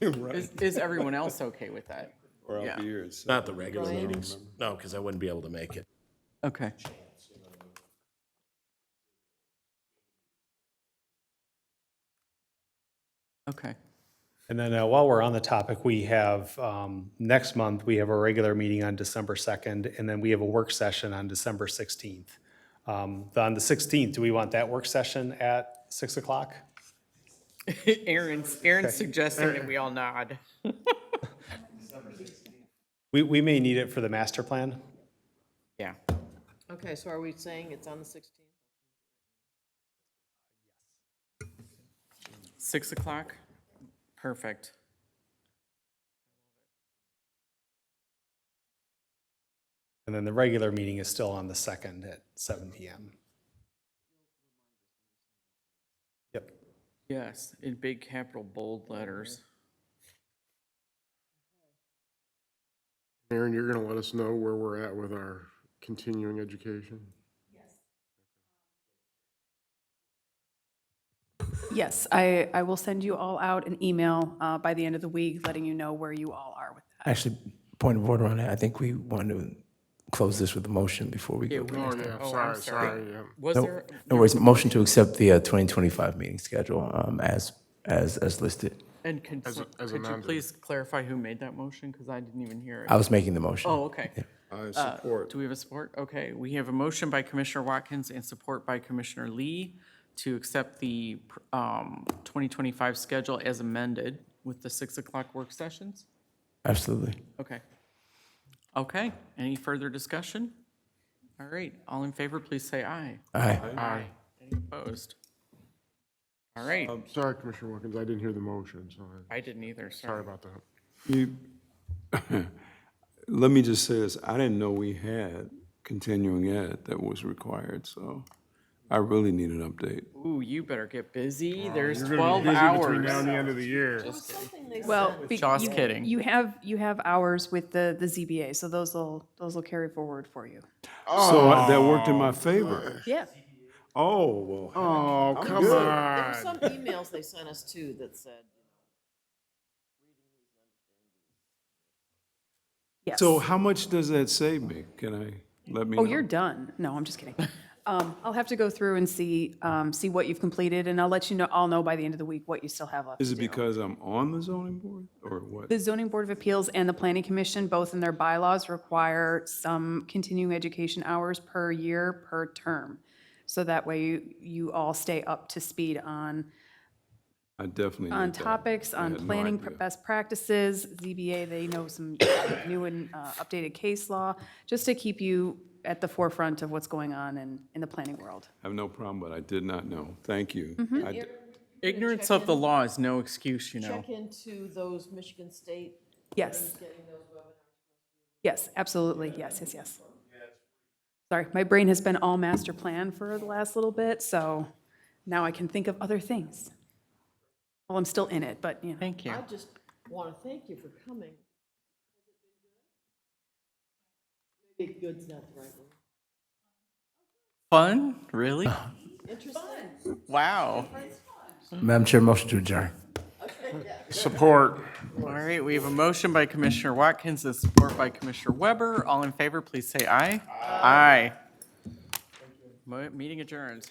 Right, Is, is everyone else okay with that? or I'll yeah. be here. at seven. Not the regular meetings. No, because I wouldn't be able to make it. Okay. Okay. And then uh, while we're on the topic, we have, um, next month, we have a regular meeting on December 2nd, and then we have a work session on December 16th. Um, the- On the 16th, do we want that work session at 6 o'clock? Aaron's, Aaron's suggesting that we all nod. We, we may need it for the master plan. Yeah. Okay, so are we saying it's on the 16th? 6 o'clock? Perfect. And then the regular meeting is still on the 2nd at 7 PM. Yep. Yes, in big capital bold letters. Aaron, you're going to let us know where we're at with our continuing education? Yes, I, I will send you all out an email uh, by the end of the week, letting you know where you all are with that. Actually, point of order on that, I think we want to close this with a motion before we go. we to- Oh, missed it. yeah, Oh, I'm sorry, sorry, yeah. Was No there, no worries, motion to accept the uh, 2025 meeting schedule um, as, as, as listed. and could, As a- some- as could you amended. please clarify who made that motion? Because I didn't even hear it. I was making the motion. Oh, okay. I support. Do we have a support? Okay, we have a motion by Commissioner Watkins and support by Commissioner Lee to accept the um, 2025 schedule as amended with the 6 o'clock work sessions? Absolutely. Okay. Okay, any further discussion? All right, all in favor, please say aye. Aye. Aye. Any opposed? All right, Um, Sorry, Commissioner Wilkins, I didn't hear the motion, so I- I didn't either, sorry sorry. about that. You- Let me just say this, I didn't know we had continuing ed that was required, so I really need an update. Ooh, you better get busy, there's 12 hours. the end of the year. Well, be- Just you- kidding. You have, you have hours with the, the ZBA, so those will, those will carry forward for you. So I- that worked in my favor. Yeah. Oh, well. Oh, come There were on. some emails they sent us too that said, Yes. So how much does that save me? Can I, let me know? Oh, you're done. No, I'm just kidding. Um, I'll have to go through and see, um, see what you've completed, and I'll let you know, I'll know by the end of the week what you still have left. Is it to do. because I'm on the zoning board or what? The zoning board of appeals and the planning commission, both in their bylaws, require some continuing education hours per year, per term. So that way you, you all stay up to speed on, I definitely need on that. topics, I on had no planning pr- idea. best practices. ZBA, they know some new and uh, updated case law, just to keep you at the forefront of what's going on in, in the planning world. I have no problem, but I did not know. Thank you. Mm-hmm. I d- Ignorance of the law is no excuse, you know. check into those Michigan State, Yes, getting those webinars. yes, absolutely. Yes, yes, yes. Sorry, my brain has been all master plan for the last little bit, so now I can think of other things. Well, I'm still in it, but, you know. Thank you. I just want to thank you for coming. Big good's not the right word. Fun, really? Interesting. Wow. Madam Chair, motion to adjourn. Support. All right, we have a motion by Commissioner Watkins and support by Commissioner Weber. All in favor, please say aye. Aye. Mo- Meeting adjourned.